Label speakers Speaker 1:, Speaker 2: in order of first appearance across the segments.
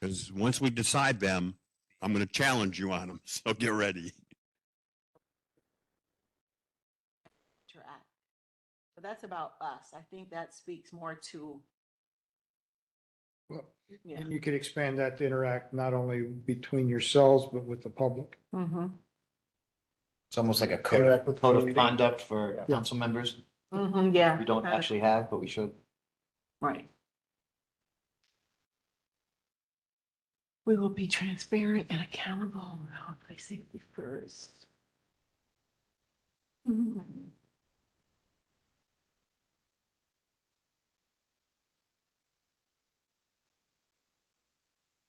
Speaker 1: Because once we decide them, I'm going to challenge you on them. So get ready.
Speaker 2: interact. But that's about us. I think that speaks more to,
Speaker 3: Well,
Speaker 2: yeah.
Speaker 3: And you could expand that to interact not only between yourselves, but with the public.
Speaker 2: Mm-hmm,
Speaker 4: It's almost like a code,
Speaker 3: Interact with
Speaker 4: code of
Speaker 3: community.
Speaker 4: conduct for
Speaker 3: Yeah.
Speaker 4: council members.
Speaker 2: mm-hmm, yeah.
Speaker 4: We don't
Speaker 2: kind of,
Speaker 4: actually have, but we should.
Speaker 2: Right. We will be transparent and accountable around my safety first. Mhm.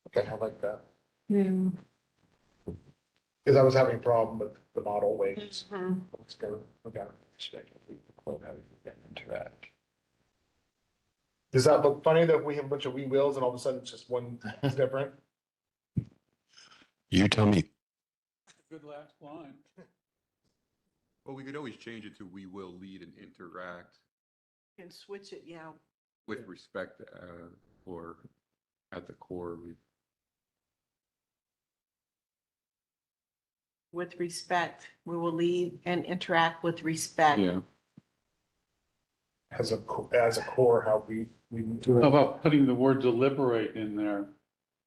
Speaker 3: Okay, I like that.
Speaker 2: Yeah.
Speaker 3: Because I was having a problem with the model ways.
Speaker 2: Mhm.
Speaker 3: Let's go, okay. respect the people, how they interact. Does that look funny that we have a bunch of we wills and all of a sudden it's just one is different?
Speaker 1: You tell me.
Speaker 5: Good last line.
Speaker 6: Well, we could always change it to we will lead and interact
Speaker 2: Can switch it, yeah.
Speaker 6: with respect uh, or at the core. We
Speaker 2: With respect, we will lead and interact with respect.
Speaker 3: As a, co- as a core, how we, we do
Speaker 4: Oh,
Speaker 5: How
Speaker 3: it.
Speaker 5: about putting the word deliberate in there?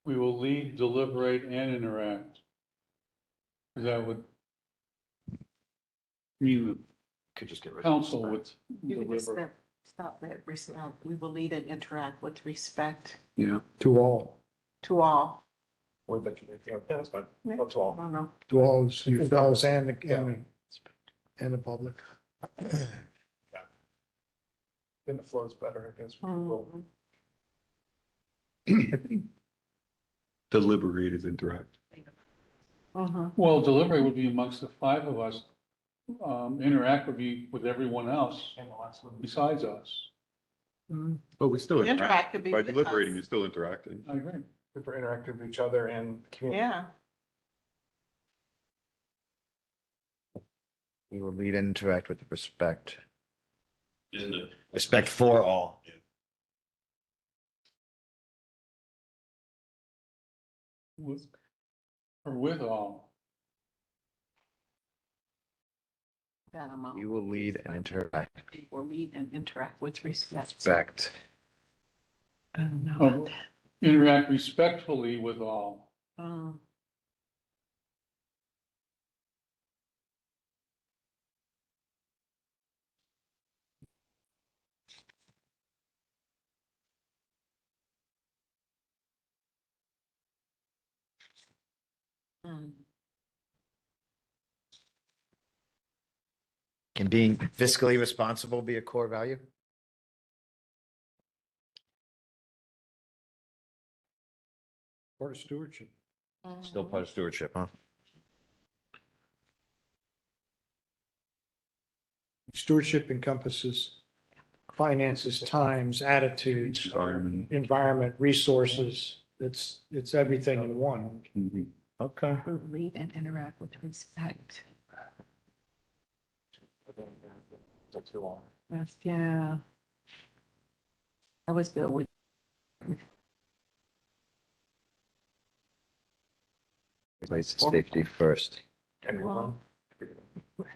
Speaker 5: We will lead, deliberate, and interact. That would mean
Speaker 4: Could just get
Speaker 5: the
Speaker 4: rid of.
Speaker 5: council would
Speaker 2: You can just
Speaker 5: deliver.
Speaker 2: stop- Stop that, respect. We will lead and interact with respect
Speaker 5: Yeah.
Speaker 3: To all.
Speaker 2: to all.
Speaker 3: Or that, you- yeah, that's fine.
Speaker 2: Yeah.
Speaker 3: Not to all.
Speaker 2: I don't know.
Speaker 3: To all, yourselves and, the- and, and the public. Then it flows better, I guess.
Speaker 2: Mhm.
Speaker 6: Deliberate is interact.
Speaker 2: Mhm.
Speaker 5: Well, deliberate would be amongst the five of us. Um, interact would be with everyone else besides us.
Speaker 2: Mhm.
Speaker 6: But we still interact.
Speaker 2: Interact could be.
Speaker 6: By
Speaker 2: with
Speaker 6: deliberating,
Speaker 2: us.
Speaker 6: you're still interacting.
Speaker 5: I agree.
Speaker 3: Super interactive with each other and community.
Speaker 2: Yeah,
Speaker 4: We will lead and interact with respect.
Speaker 6: Isn't it?
Speaker 4: Respect for all.
Speaker 5: With, or with all.
Speaker 2: that amount.
Speaker 4: You will lead and interact.
Speaker 2: Or lead and interact with respect.
Speaker 4: Respect.
Speaker 2: I don't know
Speaker 5: Oh.
Speaker 2: about that.
Speaker 5: Interact respectfully with all.
Speaker 2: Um, mm,
Speaker 4: Can being fiscally responsible be a core value?
Speaker 3: Part of stewardship.
Speaker 4: Still part of stewardship, huh?
Speaker 3: Stewardship encompasses finances, times, attitudes, environment, resources. It's, it's everything in one.
Speaker 4: Okay.
Speaker 2: Lead um, and interact with respect. That's, yeah. I was built with.
Speaker 4: Place safety first.
Speaker 3: Everyone.
Speaker 2: Respect.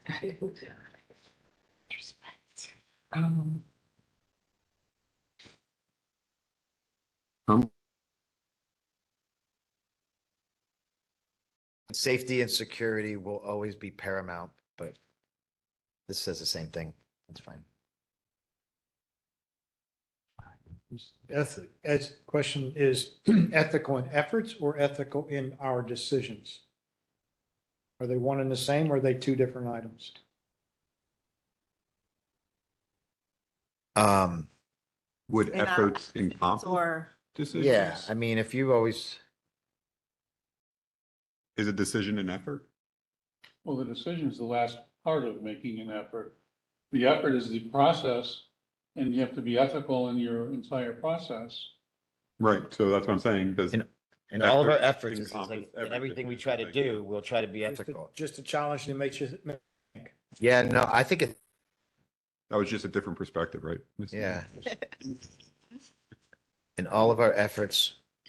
Speaker 2: Um.
Speaker 4: Safety and security will always be paramount, but this says the same thing. That's fine.
Speaker 3: Eth, as, question is ethical in efforts or ethical in our decisions? Are they one and the same or are they two different items?
Speaker 4: Um,
Speaker 6: Would
Speaker 2: And, uh,
Speaker 6: efforts encompass
Speaker 2: Or,
Speaker 6: decisions?
Speaker 4: yeah, I mean, if you always,
Speaker 6: Is a decision an effort?
Speaker 5: Well, the decision is the last part of making an effort. The effort is the process, and you have to be ethical in your entire process.
Speaker 6: Right, so that's what I'm saying, does.
Speaker 4: And- in all of our
Speaker 6: Effort
Speaker 4: efforts, it's like,
Speaker 6: encompasses
Speaker 4: in everything we
Speaker 6: everything,
Speaker 4: try
Speaker 6: I
Speaker 4: to
Speaker 6: think.
Speaker 4: do, we'll try to be
Speaker 3: Just to-
Speaker 4: ethical.
Speaker 3: Just a challenge to make you,
Speaker 4: Yeah, no, I think it,
Speaker 6: That was just a different perspective, right? Mr.
Speaker 4: yeah. In all of our efforts,